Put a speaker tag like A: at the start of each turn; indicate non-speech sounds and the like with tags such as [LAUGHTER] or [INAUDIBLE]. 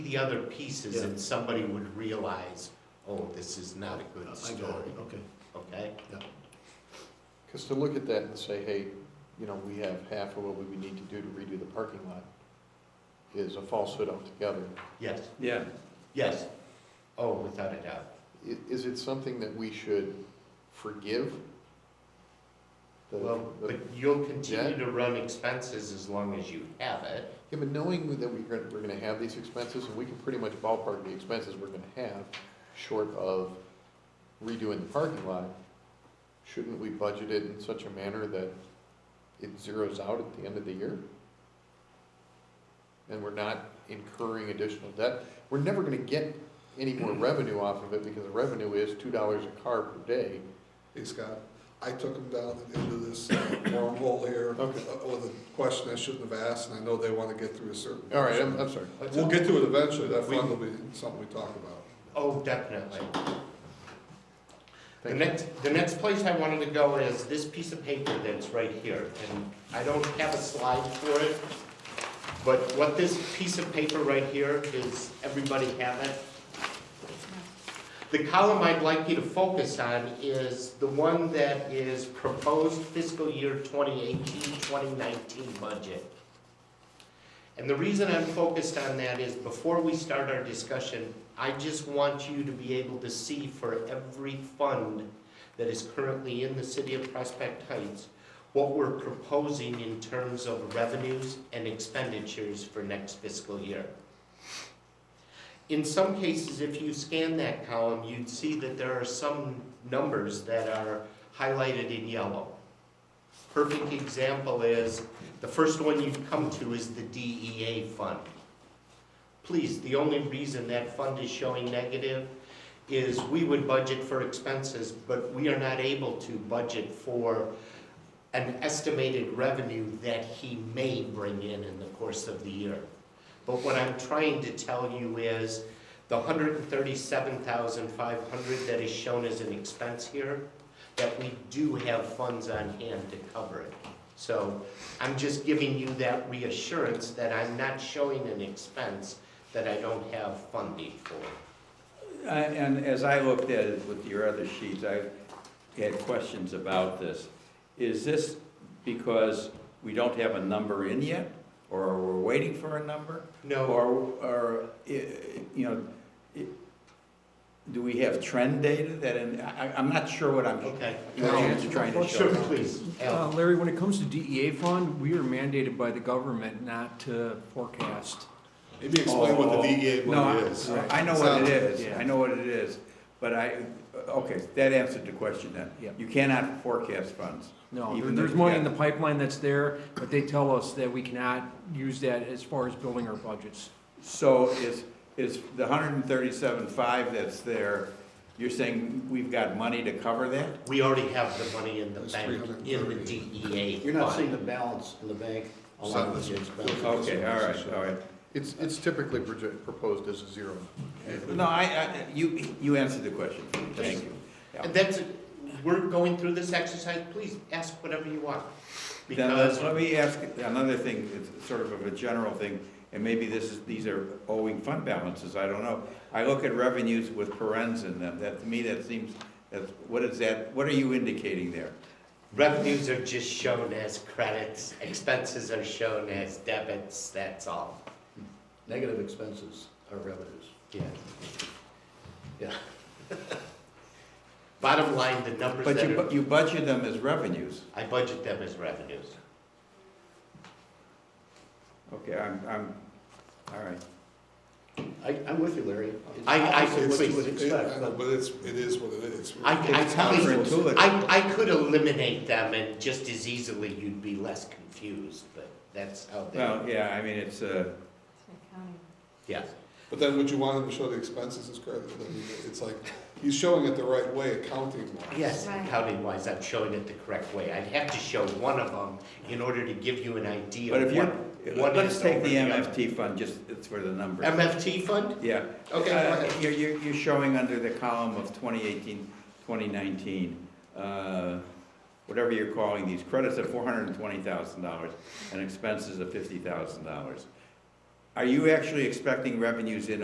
A: the other pieces
B: Yeah.
A: and somebody would realize, oh, this is not a
B: I
A: good
B: got
A: story,
B: it, okay.
A: okay?
C: Because to look at that and say, hey, you know, we have half of what we need to do to redo the parking lot is a falsehood altogether.
A: Yes,
D: Yeah,
A: yes. Oh, without a doubt.
C: I- Is it something that we should forgive? The-
A: Well,
C: the-
A: but you'll continue to run expenses as long as you have it.
C: Yeah, but knowing that we're gonna, we're gonna have these expenses, and we can pretty much ballpark the expenses we're gonna have, short of redoing the parking lot, shouldn't we budget it in such a manner that it zeroes out at the end of the year? And we're not incurring additional debt, we're never gonna get any more revenue off of it, because the revenue is two dollars a car per day.
E: Hey Scott, I took them down into this uh, wormhole here uh,
C: Okay.
E: with a question I shouldn't have asked, and I know they want to get through a certain.
C: All right, I'm, I'm sorry.
E: We'll get to it eventually, that
A: We-
E: fund will be something we talk about.
A: Oh, definitely. The
C: Thank you.
A: next, the next place I wanted to go is this piece of paper that's right here, and I don't have a slide for it, but what this piece of paper right here is, everybody have it? The column I'd like you to focus on is the one that is proposed fiscal year 2018, 2019 budget. And the reason I'm focused on that is before we start our discussion, I just want you to be able to see for every fund that is currently in the city of Prospect Heights, what we're proposing in terms of revenues and expenditures for next fiscal year. In some cases, if you scan that column, you'd see that there are some numbers that are highlighted in yellow. Perfect example is the first one you've come to is the DEA fund. Please, the only reason that fund is showing negative is we would budget for expenses, but we are not able to budget for an estimated revenue that he may bring in in the course of the year. But what I'm trying to tell you is the hundred and thirty-seven thousand five hundred that is shown as an expense here, that we do have funds on hand to cover it. So I'm just giving you that reassurance that I'm not showing an expense that I don't have funding for.
D: I- and as I looked at it with your other sheets, I had questions about this. Is this because we don't have a number in yet, or we're waiting for a number?
A: No,
D: Or, or, i- you know, i- do we have trend data that, in- I, I'm not sure what I'm,
A: okay. Oh,
D: what you're trying to show.
A: Sure, please,
F: Uh,
A: Al.
F: Larry, when it comes to DEA fund, we are mandated by the government not to forecast.
E: Maybe explain what
D: Oh.
E: the DEA
D: No,
E: money
D: I-
E: is.
D: I know what it is,
F: Yeah.
D: I know what it is, but I, okay, that answered the question then.
F: Yep.
D: You cannot forecast funds.
F: No, there-
D: Even
F: there's
D: though-
F: money in
D: yeah.
F: the pipeline that's there, but they tell us that we cannot use that as far as building our budgets.
D: So is, is the hundred and thirty-seven five that's there, you're saying we've got money to cover that?
A: We already have the money in the
E: There's
A: bank, in the
E: 330.
A: DEA.
G: You're not
A: fund.
G: seeing the balance in the bank along with the expense.
D: Okay, all right, all right.
C: It's, it's typically proje- proposed as a zero.
D: No, I, I, you, you answered the question, thank you. Yeah.
A: And that's, we're going through this exercise, please ask whatever you want.
D: Then
A: Because,
D: let, let me ask another thing, it's sort of a general thing, and maybe this is, these are owing fund balances, I don't know. I look at revenues with parens in them, that, to me, that seems, that's, what is that, what are you indicating there?
A: Revenues are just shown as credits, expenses are shown as debits, that's all.
G: Negative expenses are revenues.
A: Yeah.
G: Yeah.
A: [LAUGHS] Bottom line, the numbers
D: But you,
A: that
D: bu-
A: are,
D: you budget them as revenues.
A: I budget them as revenues.
D: Okay, I'm, I'm, all right.
G: I, I'm with you, Larry. It's
A: I- I-
G: opposite what you would
E: It- I
G: expect,
E: know,
G: but
E: But it's, it is what it is.
A: I, I
D: uh, It's
A: probably,
D: counterintuitive.
A: I, I could eliminate them and just as easily you'd be less confused, but that's how they,
D: Well, yeah, I mean, it's, uh,
A: yeah.
E: But then would you want him to show the expenses as credit? I mean, It's like, he's showing it the right way accounting wise.
A: Yes,
H: Right.
A: accounting wise, I'm showing it the correct way. I'd have to show one of them in order to give you an idea
D: but if
A: of
D: you're,
A: what. one
D: let's
A: is
D: take
A: over
D: the
A: the other.
D: MFT fund, just, it's for the numbers.
A: MFT fund?
D: Yeah.
A: Okay,
D: Uh,
A: go ahead.
D: You're, you're, you're showing under the column of 2018, 2019, uh, whatever you're calling these, credits of $420,000 and expenses of $50,000. Are you actually expecting revenues in